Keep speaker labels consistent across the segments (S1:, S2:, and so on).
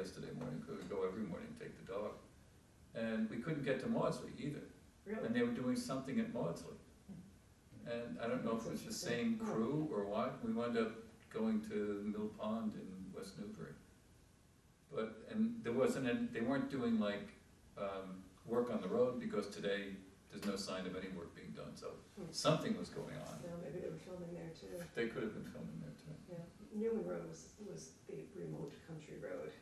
S1: yesterday morning, 'cause we go every morning, take the dog. And we couldn't get to Maudsley either,
S2: Really?
S1: and they were doing something at Maudsley. And I don't know if it was the same crew or what, we wound up going to Mill Pond in West Newbury. But, and there wasn't, an- they weren't doing like, um, work on the road, because today, there's no sign of any work being done, so
S2: Hmm.
S1: something was going on.
S2: No, maybe they were filming there too,
S1: They could have been filming there too.
S2: yeah. Newman Road was, was the remote country road.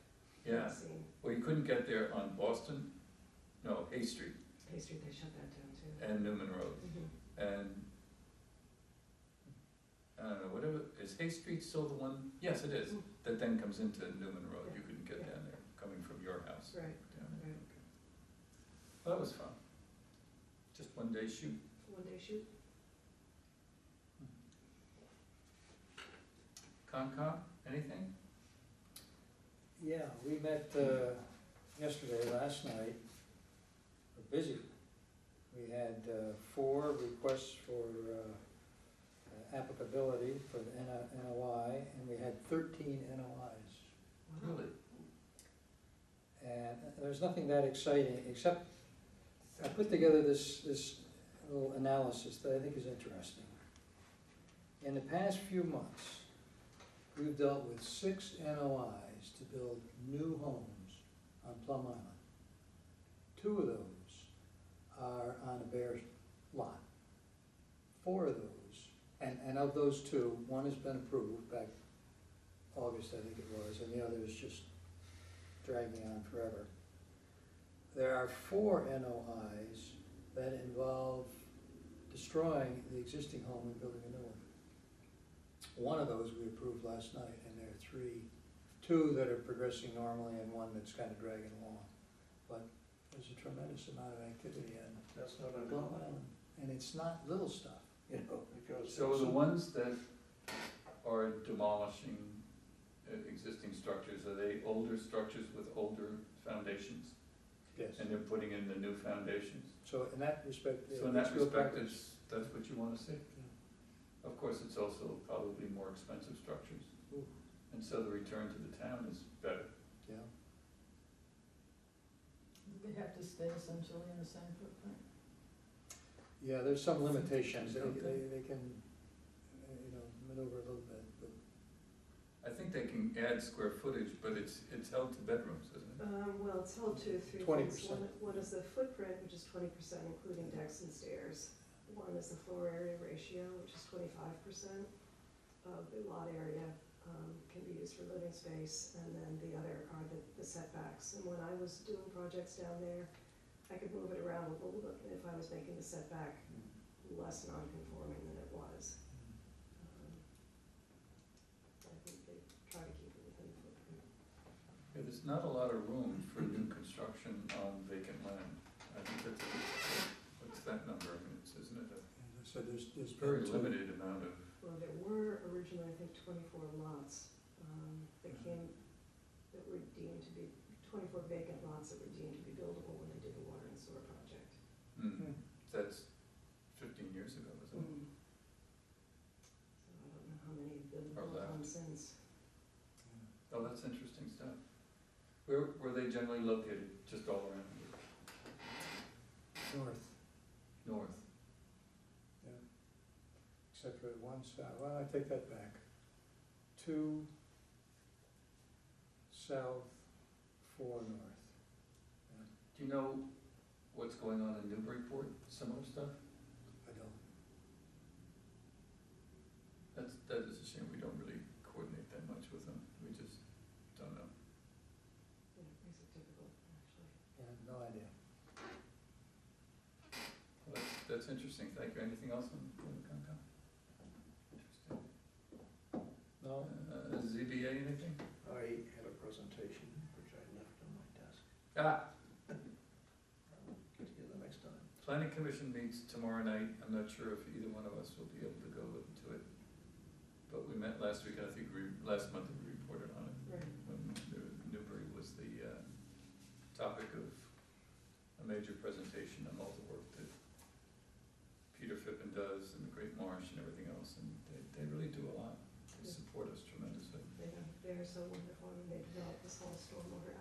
S1: Yeah,
S2: Seeing
S1: well, you couldn't get there on Boston, no, Hay Street
S2: Hay Street, they shut that down too.
S1: and Newman Road,
S2: Mhm.
S1: and I don't know, whatever, is Hay Street still the one? Yes, it is, that then comes into Newman Road, you couldn't get down there, coming from your house.
S2: Right,
S1: down there.
S2: right.
S1: Well, That was fun. Just one day shoot.
S2: One day shoot,
S1: Concom, anything?
S3: Yeah, we met uh, yesterday, last night, we're busy. We had uh, four requests for uh, applicability for the N- NOI, and we had thirteen NOIs.
S2: wow.
S3: And there's nothing that exciting, except I put together this, this little analysis that I think is interesting. In the past few months, we've dealt with six NOIs to build new homes on Plum Island. Two of those are on a bare lot. Four of those, and, and of those two, one has been approved back August, I think it was, and the other is just dragging on forever. There are four NOIs that involve destroying the existing home and building a new one. One of those we approved last night, and there are three, two that are progressing normally and one that's kind of dragging along. But there's a tremendous amount of activity on
S4: That's not
S3: Plum
S4: unusual,
S3: Island, and it's not little stuff,
S5: uh,
S3: you know?
S4: because.
S1: So the ones that are demolishing uh, existing structures, are they older structures with older foundations?
S3: Yes.
S1: And they're putting in the new foundations?
S3: So in that respect. yeah,
S1: So in that
S3: let's go
S1: respect,
S3: backwards.
S1: it's, that's what you wanna see. Of course, it's also probably more expensive structures,
S3: Ooh.
S1: and so the return to the town is better.
S3: Yeah,
S5: They have to stay essentially in the same footprint.
S3: yeah, there's some limitations, they, they, they can, uh, you know, maneuver a little bit, but
S1: I think they can add square footage, but it's, it's held to bedrooms, isn't it?
S2: Um, well, it's held to three things.
S3: 20%.
S2: One, one is the footprint, which is twenty percent including decks and stairs. One is the floor area ratio, which is twenty-five percent of the lot area, um, can be used for living space. And then the other are the, the setbacks. And when I was doing projects down there, I could move it around a little bit if I was making the setback less non-conforming than it was. Um, I think they try to keep it within the footprint.
S1: Yeah, There's not a lot of room for new construction on vacant land. I think that's, what's that number of minutes, isn't it? A
S3: as I said, there's, there's.
S1: Very limited amount of,
S2: Well, there were originally, I think, twenty-four lots, um, that
S1: Mm-hmm.
S2: came, that were deemed to be, twenty-four vacant lots that were deemed to be buildable when they did the water and sewer project.
S1: hmm, that's fifteen years ago,
S2: So
S1: isn't it?
S2: I don't know how many have been
S1: Are
S2: built
S1: left.
S2: on since.
S1: Oh, that's interesting stuff. Where, were they generally located? Just all around here?
S3: North,
S1: north?
S3: except for one south, well, I take that back. Two south, four north.
S1: Do you know what's going on in Newburyport, similar stuff?
S3: I don't,
S1: That's, that is a shame, we don't really coordinate that much with them, we just don't know.
S2: Yeah, it makes it difficult, actually.
S3: I have no idea.
S1: Well, that's, that's interesting, thank you, anything else on on the Concom? Interesting.
S3: No?
S1: Uh, ZBA, anything?
S4: I had a presentation which I left on my desk.
S1: Ah,
S4: I'll Get together next time.
S1: planning commission meets tomorrow night, I'm not sure if either one of us will be able to go to it. But we met last week, and I think we, last month we reported on it. uh,
S2: Right.